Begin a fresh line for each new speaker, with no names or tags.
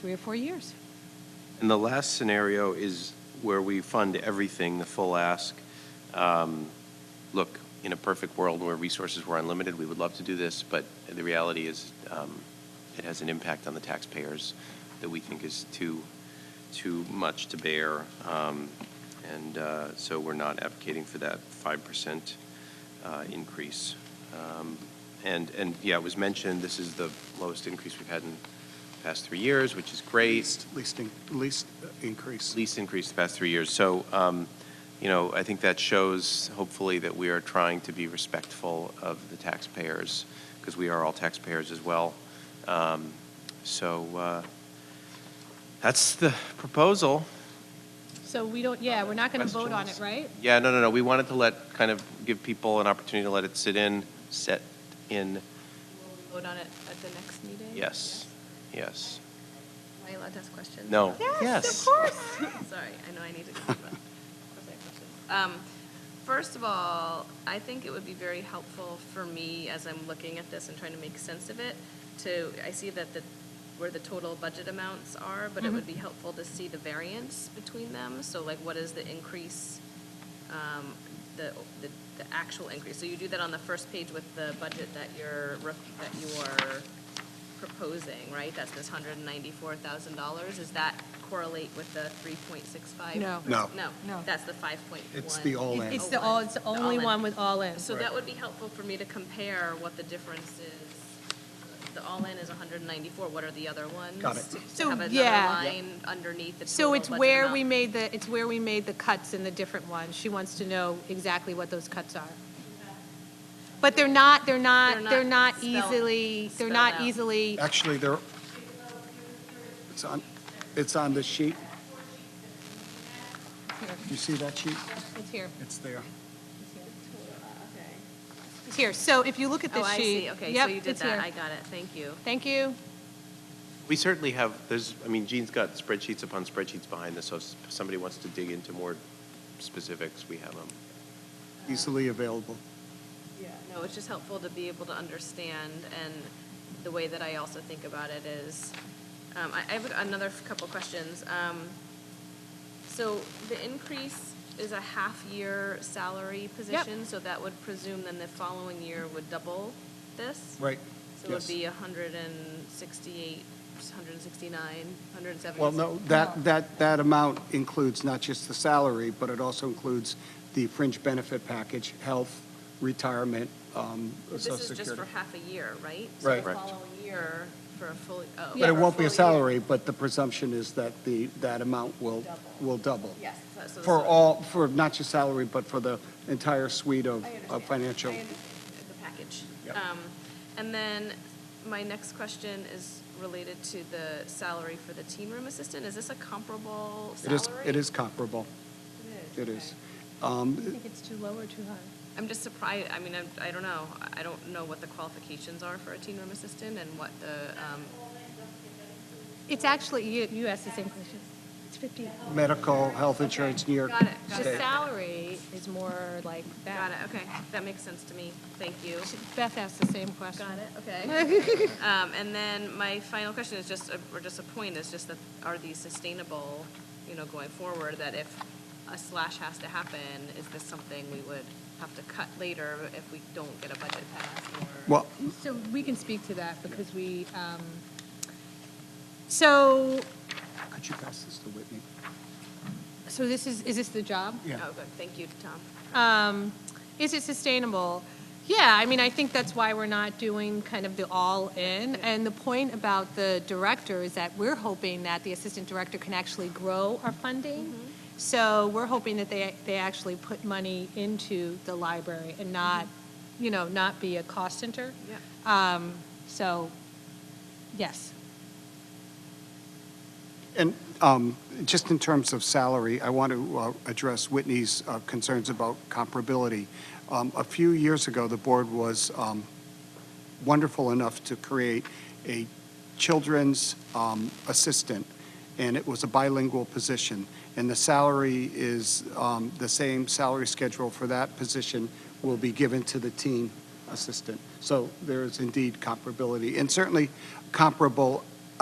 three or four years.
And the last scenario is where we fund everything, the full ask. Um, Look, in a perfect world where resources were unlimited, we would love to do this, but the reality is um, it has an impact on the taxpayers that we think is too, too much to bear. Um, And uh, so we're not advocating for that 5% uh, increase. Um, And, and yeah, it was mentioned, this is the lowest increase we've had in the past three years, which is great
Least, least, in- least increase.
least increase the past three years. So, um, you know, I think that shows hopefully that we are trying to be respectful of the taxpayers because we are all taxpayers as well. Um, so uh, that's the proposal.
So we don't, yeah, we're not going to vote on it,
Questions?
right?
Yeah, no, no, no. We wanted to let kind of give people an opportunity to let it sit in, set in.
Vote on it at the next meeting?
Yes, yes.
Am I allowed to ask questions?
No.
Yes, of course.
Sorry, I know I need to. Of course I have questions. Um, First of all, I think it would be very helpful for me, as I'm looking at this and trying to make sense of it, to, I see that the, where the total budget amounts are, but it would be helpful to see the variance between them. So like, what is the increase, um, the, the the actual increase? So you do that on the first page with the budget that you're, rec- that you are proposing, right? That's this hundred and ninety-four thousand dollars. Does that correlate with the three point six five?
No.
No.
No.
No.
That's the five point one.
It's the all in.
It's the all, it's the only
all-in.
one with all in.
So that would be helpful for me to compare what the difference is. The all-in is hundred and ninety-four. What are the other ones?
Got it.
To- to
So,
have another
yeah.
line underneath the
So
total
it's
budget
where
amount.
we made the, it's where we made the cuts in the different ones. She wants to know exactly what those cuts are. But they're not, they're not,
They're
they're
not
not
spelled-
easily, they're
spelled
not
out.
easily,
Actually, there, it's on, it's on the sheet. You see that sheet?
it's here,
It's there.
it's here. So if you look at
Oh,
this
I
sheet.
see. Okay, so
Yep,
you did
it's
that.
here.
I got it. Thank you.
Thank you.
We certainly have, there's, I mean, Gene's got spreadsheets upon spreadsheets behind this, so if somebody wants to dig into more specifics, we have them.
Easily available.
Yeah, no, it's just helpful to be able to understand, and the way that I also think about it is, um, I, I have another f- couple questions. Um, so the increase is a half-year salary position, so that would presume then the following year would double this?
Right.
So it would
Yes.
be a hundred and sixty-eight, hundred and sixty-nine, hundred and seventy?
Well, no,
Oh.
that, that, that amount includes not just the salary, but it also includes the fringe benefit package, health, retirement, um, social
This is just for
security.
half a year, right?
Right.
So the
Correct.
following year for a full, oh.
But
for
it won't be a
full year.
salary, but the presumption is that the, that amount will, will double.
Yes. so- so-
For
so-
all, for not just salary, but for the entire suite of,
I
of
understand.
Uh, financial.
I understand The package.
Yep.
Um, And then my next question is related to the salary for the team room assistant. Is this a comparable
It is,
salary?
it is comparable. It is. Um,
think it's too low or too high?
I'm just surprised, I mean, I'm- I don't know. I don't know what the qualifications are for a team room assistant and what the, um,
It's actually, you, you asked the same question. It's 50.
Medical, health insurance, New York
Got it, got
The
State.
salary is more like that.
got it, okay. That makes sense to me. Thank you.
Beth asked the same question.
Got it, okay. Um, and then my final question is just, a- or just a point, is just that are these sustainable, you know, going forward? That if a slash has to happen, is this something we would have to cut later if we don't get a budget passed? or-
Well,
So we can speak to that because we, um, so,
could you pass this to Whitney?
so this is, is this the job?
Yeah.
Oh, good, thank you, Tom.
Um, Is it sustainable? Yeah, I mean, I think that's why we're not doing kind of the all-in. And the point about the director is that we're hoping that the assistant director can actually grow our funding.
Mm-hmm.
So we're hoping that they, they actually put money into the library and not, you know, not be a cost center.
Yeah.
So, yes.
And um, just in terms of salary, I want to uh, address Whitney's uh, concerns about comparability. Um, A few years ago, the board was um, wonderful enough to create a children's um, assistant, and it was a bilingual position. And the salary is, um, the same salary schedule for that position will be given to the teen assistant. So there is indeed comparability, and certainly comparable